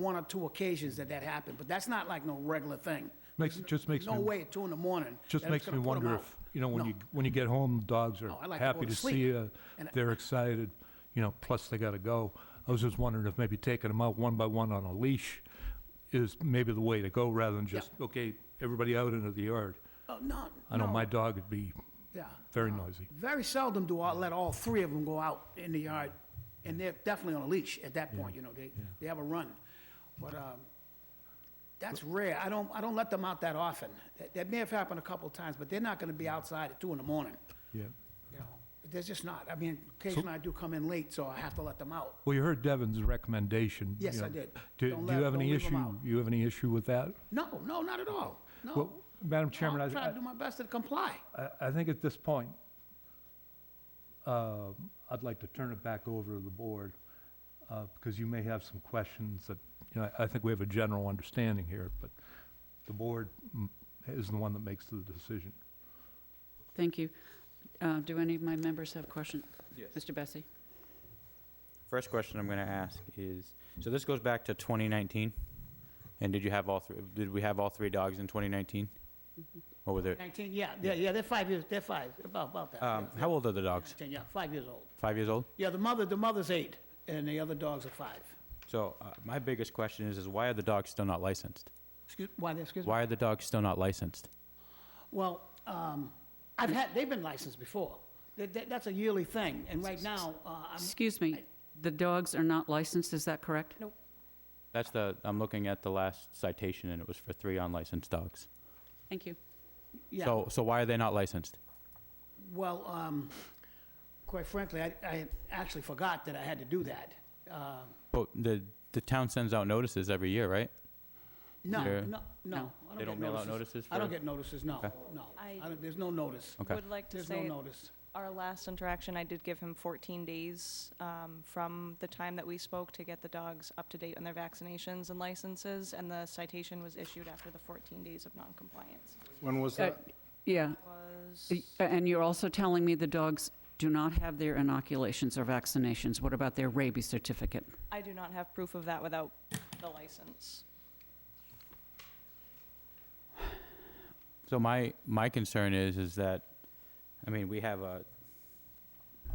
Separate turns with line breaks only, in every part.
one or two occasions that that happened, but that's not like no regular thing.
Makes, just makes me,
No way at two in the morning.
just
that it's
makes me
gonna put 'em
wonder
out.
if, you know, when
No.
you, when you get home, dogs are
No, I like to go
happy
to
to
sleep,
see you,
and I-
they're excited, you know, plus they gotta go. I was just wondering if maybe taking them out one by one on a leash is maybe the way to go, rather than just, okay, everybody out into the yard.
Oh, no,
I know
no,
my dog would be
Yeah.
very noisy.
Very seldom do I let all three of them go out in the yard, and they're definitely on a leash at that point, you know, they, they have a run. But, um, that's rare. I don't, I don't let them out that often. That, that may have happened a couple of times, but they're not gonna be outside at two in the morning,
Yeah.
you know? They're just not. I mean, occasionally I do come in late, so I have to let them out.
Well, you heard Devin's recommendation. you
Yes, I
know.
did.
Do,
Don't
do you
let-
have
don't
any
leave 'em
issue,
out. Oh,
you have any issue with that?
No, no, not at all, no.
Well, Madam
No,
Chairman, I.
I'm trying
I-
to do my best to comply.
I, I think at this point, um, I'd like to turn it back over to the board, uh, because you may have some questions that, you know, I I think we have a general understanding here, but the board mm, is the one that makes the decision.
Thank you. Uh, Do any of my members have questions? Mr. Bessie?
First question I'm going to ask is, so this goes back to 2019, and did you have all three, did we have all three dogs in 2019? Or were there,
19, yeah, yeah, yeah, they're five years, they're five, about, about that.
um, how old are the dogs?
10, yeah, five years old.
Five years old?
Yeah, the mother, the mother's eight, and the other dogs are five.
So uh, my biggest question is, is why are the dogs still not licensed?
Excuse, why, they- excuse me?
Why are the dogs still not licensed?
Well, um, I've had, they've been licensed before. That, that- that's a yearly thing, and right now, uh, I'm,
Excuse me, the dogs are not licensed, is that correct? Nope.
That's the, I'm looking at the last citation, and it was for three unlicensed dogs.
Thank you.
yeah,
So, so why are they not licensed?
well, um, quite frankly, I, I actually forgot that I had to do that. Uh,
But the, the town sends out notices every year, right?
No,
Yeah.
no, no. I
They
get
don't mail out notices
I don't
for-
get notices, no,
Okay.
no.
I-
I don't- There's no notice.
Okay.
Would like to
There's no
say,
notice.
our last interaction, I did give him 14 days um, from the time that we spoke to get the dogs up to date on their vaccinations and licenses, and the citation was issued after the 14 days of noncompliance.
When was that?
Yeah,
Was,
y- and you're also telling me the dogs do not have their inoculations or vaccinations. What about their rabies certificate?
I do not have proof of that without the license.
So my, my concern is, is that, I mean, we have a,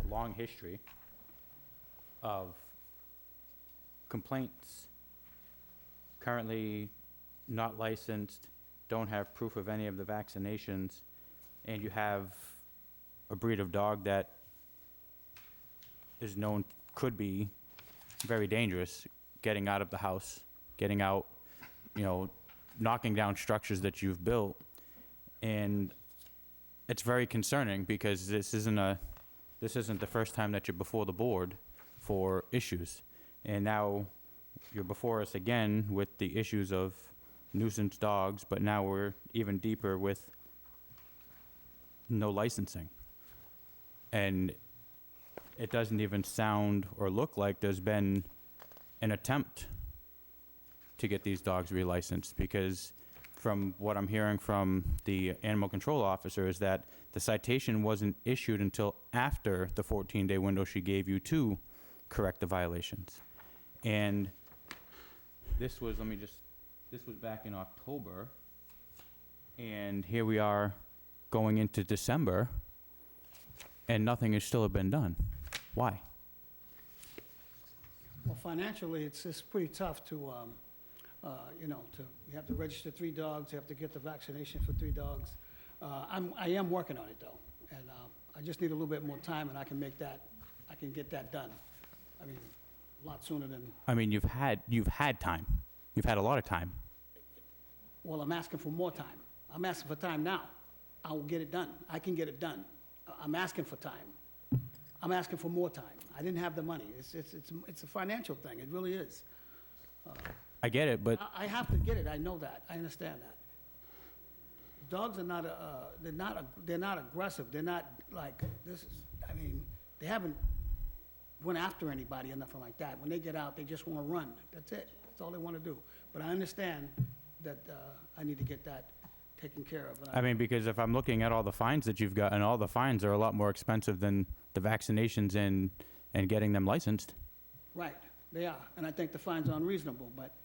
a long history of complaints, currently not licensed, don't have proof of any of the vaccinations, and you have a breed of dog that is known, could be very dangerous, getting out of the house, getting out, you know, knocking down structures that you've built and it's very concerning because this isn't a this isn't the first time that you're before the board for issues and now you're before us again with the issues of nuisance dogs but now we're even deeper with no licensing and it doesn't even sound or look like there's been an attempt to get these dogs relicensed because from what I'm hearing from the animal control officer is that the citation wasn't issued until after the 14-day window she gave you to correct the violations. And this was, let me just, this was back in October, and here we are going into December, and nothing has still been done. Why?
Well, financially, it's, it's pretty tough to, um, uh, you know, to, you have to register three dogs, you have to get the vaccination for three dogs. Uh, I'm, I am working on it though, and, uh, I just need a little bit more time and I can make that, I can get that done. I mean, a lot sooner than,
I mean, you've had, you've had time. You've had a lot of time.
well, I'm asking for more time. I'm asking for time now. I will get it done. I can get it done. I- I'm asking for time. I'm asking for more time. I didn't have the money. It's, it's, it's, it's a financial thing. It really is.
I get it, but
I I have to get it, I know that, I understand that. Dogs are not, uh, they're not, ag- they're not aggressive, they're not like, this is, I mean, they haven't went after anybody or nothing like that. When they get out, they just wanna run, that's it, that's all they wanna do. But I understand that, uh, I need to get that taken care of. and
I mean, because if I'm looking at all the fines that you've gotten, all the fines are a lot more expensive than the vaccinations and, and getting them licensed.
Right, they are, and I think the fine's unreasonable, but